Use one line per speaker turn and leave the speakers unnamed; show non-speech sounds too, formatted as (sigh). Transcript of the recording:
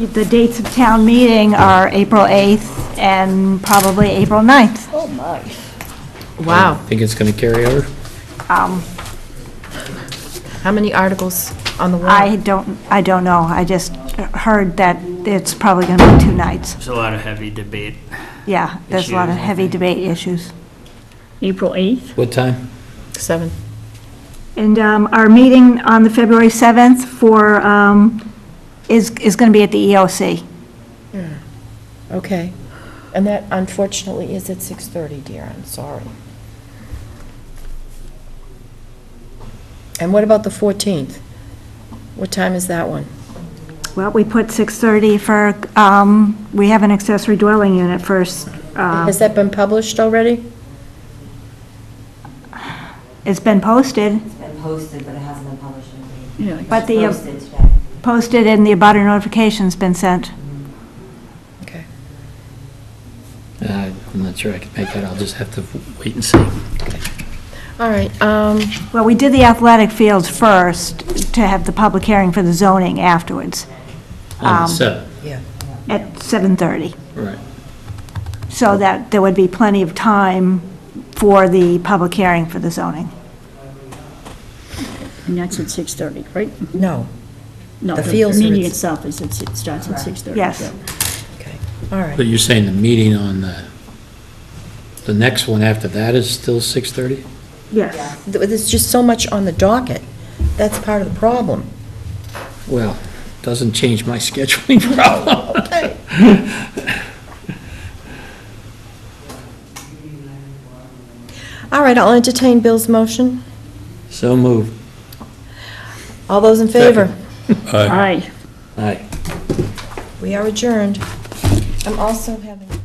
The dates of town meeting are April 8th and probably April 9th.
Oh, my.
Wow,
Think it's going to carry over?
Um,
how many articles on the
I
warrant?
don't, I don't know, I just heard that it's probably going to be two nights.
There's a lot of heavy debate.
Yeah, there's a lot of
Issues, I
heavy
think.
debate issues.
April 8th?
What time?
Seven.
And um, our meeting on the February 7th for, um, is, is going to be at the E EOC.
Okay.
And that unfortunately is at 6:30, dear, I'm sorry.
And what about the 14th? What time is that one?
Well, we put 6:30 for, um, we have an accessory dwelling unit first. uh,
Has that been published already?
It's been posted,
It's been posted, but it hasn't been published in
Yeah.
but the,
It's
uh,
posted today.
posted and the abutter notification's been sent.
Okay.
Uh, I'm not sure I can make that. I'll just have to wait and see.
All right, um,
Well, we did the athletic fields first to have the public hearing for the zoning afterwards
On
Um,
the seventh,
at 7:30.
right.
So that there would be plenty of time for the public hearing for the zoning.
And that's at 6:30, right?
No,
No,
The fields are
meeting
at-
itself is, at- it starts at 6:30.
Yes.
yeah.
okay, all right.
But you're saying the meeting on the, the next one after that is still 6:30?
Yes.
Th- There's just so much on the docket. That's part of the problem.
Well, doesn't change my (laughs) scheduling problem.
(laughs) Okay. All right, I'll entertain Bill's motion.
So moved.
All those in favor?
Aye.
Aye.
We are adjourned. I'm also having...